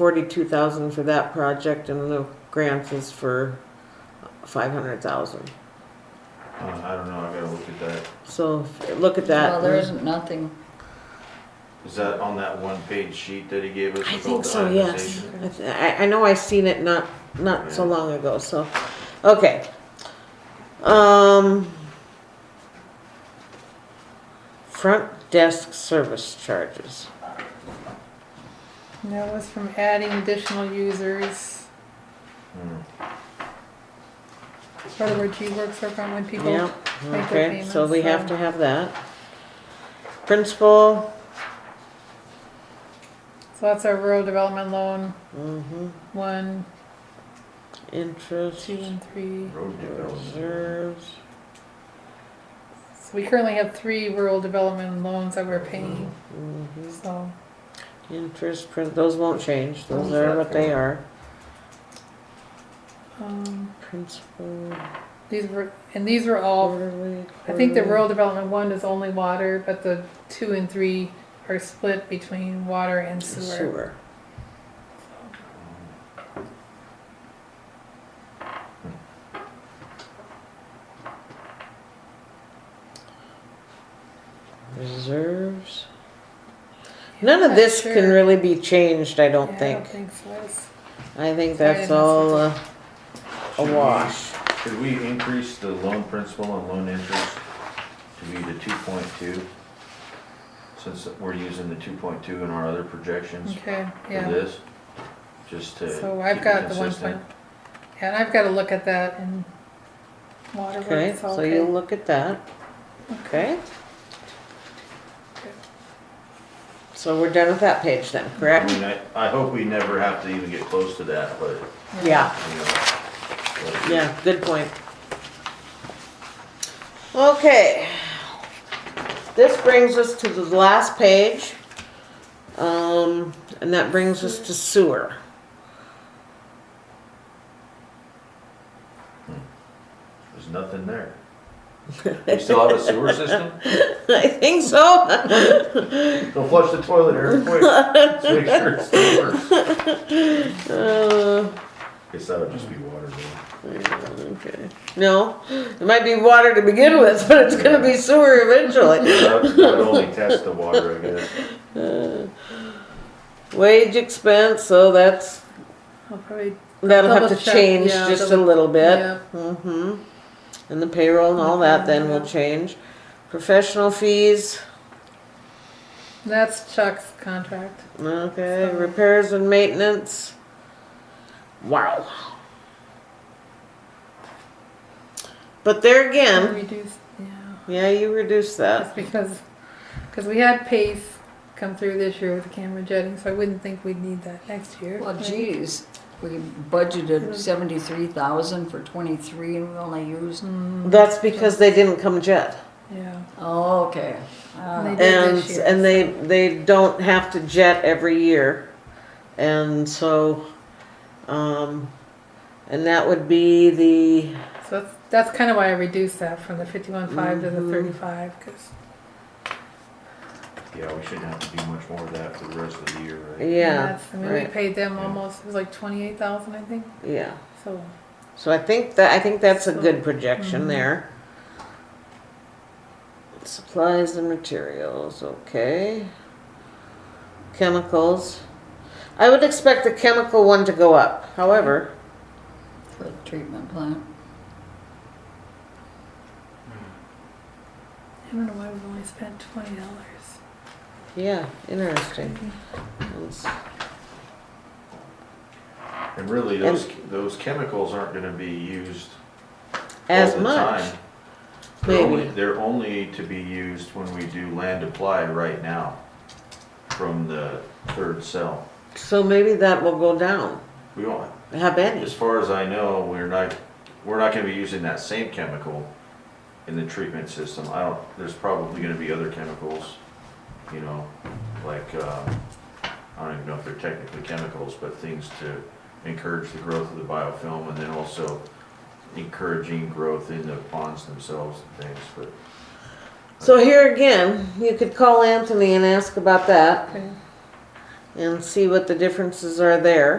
forty-two thousand for that project and the grants is for five hundred thousand. Uh, I don't know, I gotta look at that. So if- look at that. Well, there isn't nothing, Is that on that one page sheet that he gave us? I with all think the so, yes. itemization? I th- I, I know I seen it not, not so long ago, so, okay. Um. Front desk service charges. And That was from adding additional users, Hmm. part of where G-Works are from when people. Yep, their okay, so we payments, have so- to have that. Principal, So that's our rural development loan, mhm, one, interest, two, and three. Road development. reserves. So we currently have three rural development loans that we're paying, mhm. so. Interest, prin- those won't change, those Those are are what they are. um, Principal, These were, and these were all, quarterly. Oh, I think the quarterly. rural development one is only water, but the two and three are split between water and sewer. Sewer. Reserves. None of Not this can sure. really be changed, I Yeah, don't think. I don't think so. It's- I think Sorry, that's I all uh, missed a Should we- wash. Should we increase the loan principal and loan interest to be the two point two? Since we're using the two point two in our other projections for Okay, yeah. this? Just to So keep I've got it the one point, consistent? and I've got to look at that in Okay, Waterworks, so you okay. look at that. Okay. So we're done with that page then, I correct? mean, I, I hope we never have to even get close to that, but, Yeah, you know. but- yeah, good point. Okay. This brings us to the last page. Um, and that brings us to sewer. There's nothing there. We still have a sewer system? I think so. Don't flush the toilet every quick. Let's make sure it still works. Uh, Guess that would just be water though. okay. No, it might be water to begin with, but it's gonna be sewer eventually. Uh, That would that would only test the water, I guess. Wage expense, so that's, I'll probably, that'll have to Double check, change yeah, just a double- little bit. yeah, Mm-hmm. And the payroll and all that then will change. Professional fees, that's Chuck's contract. okay, So- repairs and maintenance. Wow. But there again, Reduced, yeah, yeah, you reduced that. that's because, because we had Pace come through this year with the camera jetting, so I wouldn't think we'd need that next year. well, right? geez, we budgeted seventy-three thousand for twenty-three and we only used, Mm, That's because they didn't come jet. Yeah, oh, okay. Uh, They- did And, this year. and they, they don't have to jet every year. And so, um, and that would be the, so that's, that's kind of why I reduced that from the fifty-one five to Mm-hmm. the thirty-five, because, Yeah, we shouldn't have to do much more of that for the rest of the year, right? yeah, I mean, we right. paid them Yeah. almost, it was like twenty-eight thousand, I think, yeah. so. So I think that, I think that's a good So- projection Mhm. there. Supplies and materials, okay. Chemicals. I would expect the chemical one to go up, however, for the treatment plant. I don't know why we've only spent twenty dollars. yeah, interesting. Let's- And really, those, those chemicals aren't gonna be used all As the much. time. They're only- maybe. They're only to be used when we do land apply right now from the third cell. So maybe that will go down. We won't, How many? As far as I know, we're not, we're not gonna be using that same chemical in the treatment system. I don't, there's probably gonna be other chemicals, you know, like, um, I don't even know if they're technically chemicals, but things to encourage the growth of the biofilm and then also encouraging growth in the ponds themselves and things, but So here again, you could call Anthony and ask about that. Okay. and see what the differences are there.